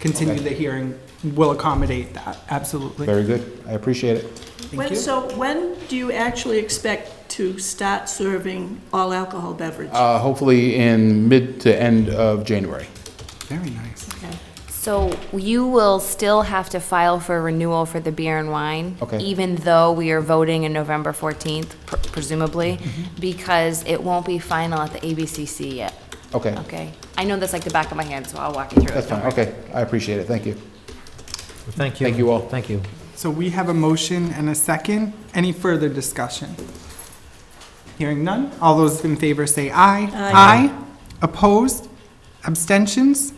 continue Okay. the hearing will accommodate that, absolutely. Very good. I appreciate it. Thank When, you. so when do you actually expect to start serving all alcohol beverage? Uh, Hopefully in mid to end of January. Very nice. Okay. So you will still have to file for renewal for the beer and wine? Okay. Even though we are voting in November 14th, pr- presumably, Mm-hmm. because it won't be final at the ABCC yet, Okay, okay? I know that's like the back of my hand, so I'll walk you through it. that's fine. don't worry. Okay, I appreciate it. Thank you. Thank you. Thank you all. Thank you. So we have a motion and a second. Any further discussion? Hearing none, all those in favor say aye. Aye. Opposed? Abstentions?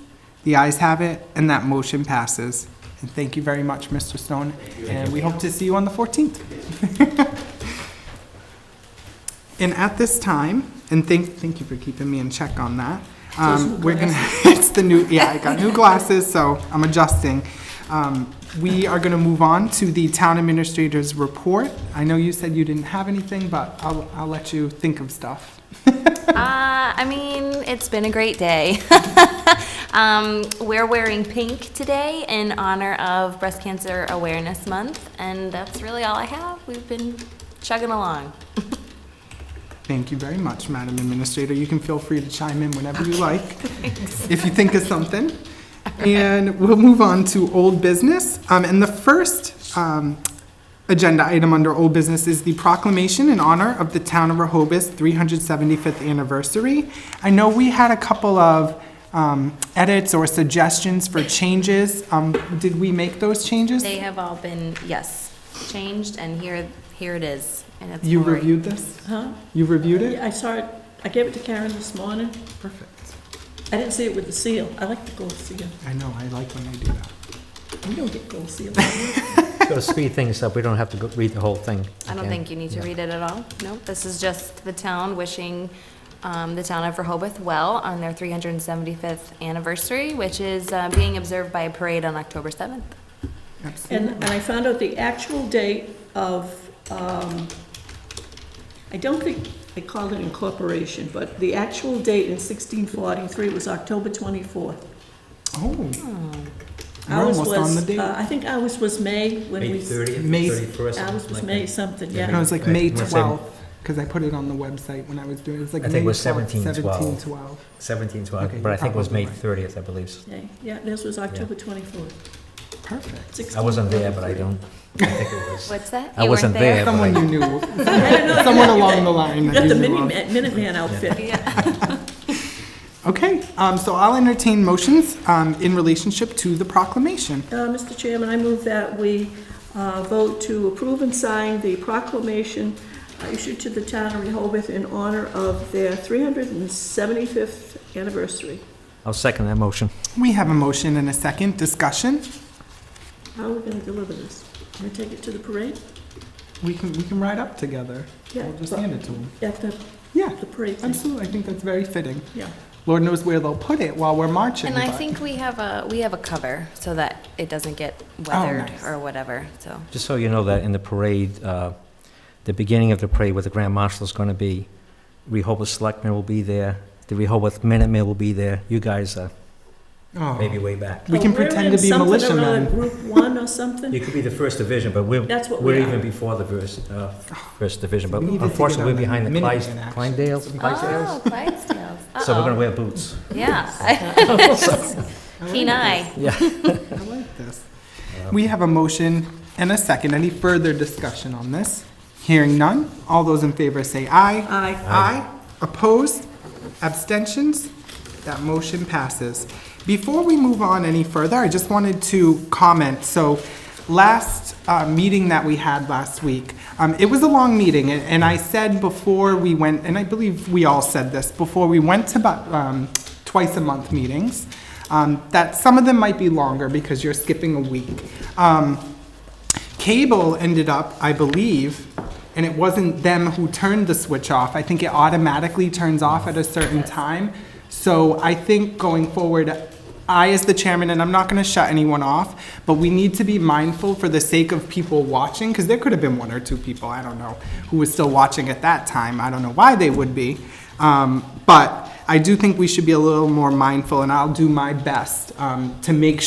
The ayes have it, and that motion passes. And thank you very much, Mr. Stone, and we hope to see you on the 14th. And at this time, and thank, thank you for keeping me in check on that. Um, we're gonna, it's the new, yeah, I got new glasses, so I'm adjusting. Um, we are gonna move on to the town administrator's report. I know you said you didn't have anything, but I'll, I'll let you think of stuff. Uh, I mean, it's been a great day. um, we're wearing pink today in honor of Breast Cancer Awareness Month, and that's really all I have. We've been chugging along. Thank you very much, Madam Administrator. You can feel free to chime in whenever you like, if you think of something. And we'll move on to old business. Um, and the first, um, agenda item under old business is the proclamation in honor of the town of Rehoboth's 375th anniversary. I know we had a couple of, um, edits or suggestions for changes. Um, did we make those changes? They have all been, yes, changed, and here, here it is. and it's You more- reviewed this? Huh? You reviewed it? Yeah, I saw it, I gave it to Karen this morning. Perfect. I didn't see it with the seal. I like the gold seal. I know, I like when they do that. We don't get gold seal. Got to speed things up. We don't have to go read the whole thing. I don't again. think you need to Yeah. read it at all. No, this is just the town wishing um, the town of Rehoboth well on their 375th anniversary, which is uh, being observed by a parade on October 7th. And, and I found out the actual date of, um, I don't think they called it incorporation, but the actual date in sixteen forty-three was October twenty-fourth. Oh. Hmm. We're Ours almost on was, the date. uh, I think ours was May when we. May 30th, May- 31st. Ours something was like May that. something, Yeah. No, yeah. it's like May Right, we're saying- twelfth, because I put it on the website when I was doing, it. it's like I May think it was 12th, 1712. 1712. 17th, so I- Okay, but I think it was probably May right. 30th, I believe. Okay, Yeah, this was October twenty-fourth, Perfect. sixteen. I wasn't there, but I don't I think it was. What's that? I You weren't wasn't there, but Someone you I, knew, know, someone along the line You that got you the knew of. Minuteman, Minuteman outfit. Okay, um, so I'll entertain motions, um, in relationship to the proclamation. Uh, Mr. Chairman, I move that we uh, vote to approve and sign the proclamation uh, issued to the town of Rehoboth in honor of their 375th anniversary. I'll second that motion. We have a motion and a second discussion. How are we going to deliver this? Can we take it to the parade? We can, we can ride up together. Yeah, We'll just but- hand it to them. At the, Yeah, the parade thing? absolutely. I think that's very fitting. Yeah. Lord knows where they'll put it while we're marching, And I but- think we have a, we have a cover so that it doesn't get weathered Oh, nice. or whatever, so. Just so you know that in the parade, uh, the beginning of the parade where the Grand Marshal is going to be, Rehoboth Selectmen will be there, the Rehoboth Minutemen will be there. You guys are Oh. maybe way back. We can Oh, we're pretend in to be something or militiamen. other, Group one or something? You could be the first division, but we're, That's what we're we are. even before the first, uh, first division. But Oh. We need to take it unfortunately, on we're the behind the minute Clyde- man, actually. Clydesdales. Oh, Clydesdales. So we're going to Uh-oh. wear boots. Yeah. Keen eye. I like this. Um, We have a motion and a second. Any further discussion on this? Hearing none, all those in favor say aye. Aye. Aye. Opposed? Abstentions? That motion passes. Before we move on any further, I just wanted to comment. So last uh, meeting that we had last week, um, it was a long meeting, and- and I said before we went, and I believe we all said this, before we went to bu- um, twice-a-month meetings, um, that some of them might be longer because you're skipping a week. Um, Cable ended up, I believe, and it wasn't them who turned the switch off. I think it automatically turns off at a certain time. So I think going forward, I, as the chairman, and I'm not going to shut anyone off, but we need to be mindful for the sake of people watching, because there could have been one or two people, I don't know, who was still watching at that time. I don't know why they would be. Um, but I do think we should be a little more mindful, and I'll do my best um, to make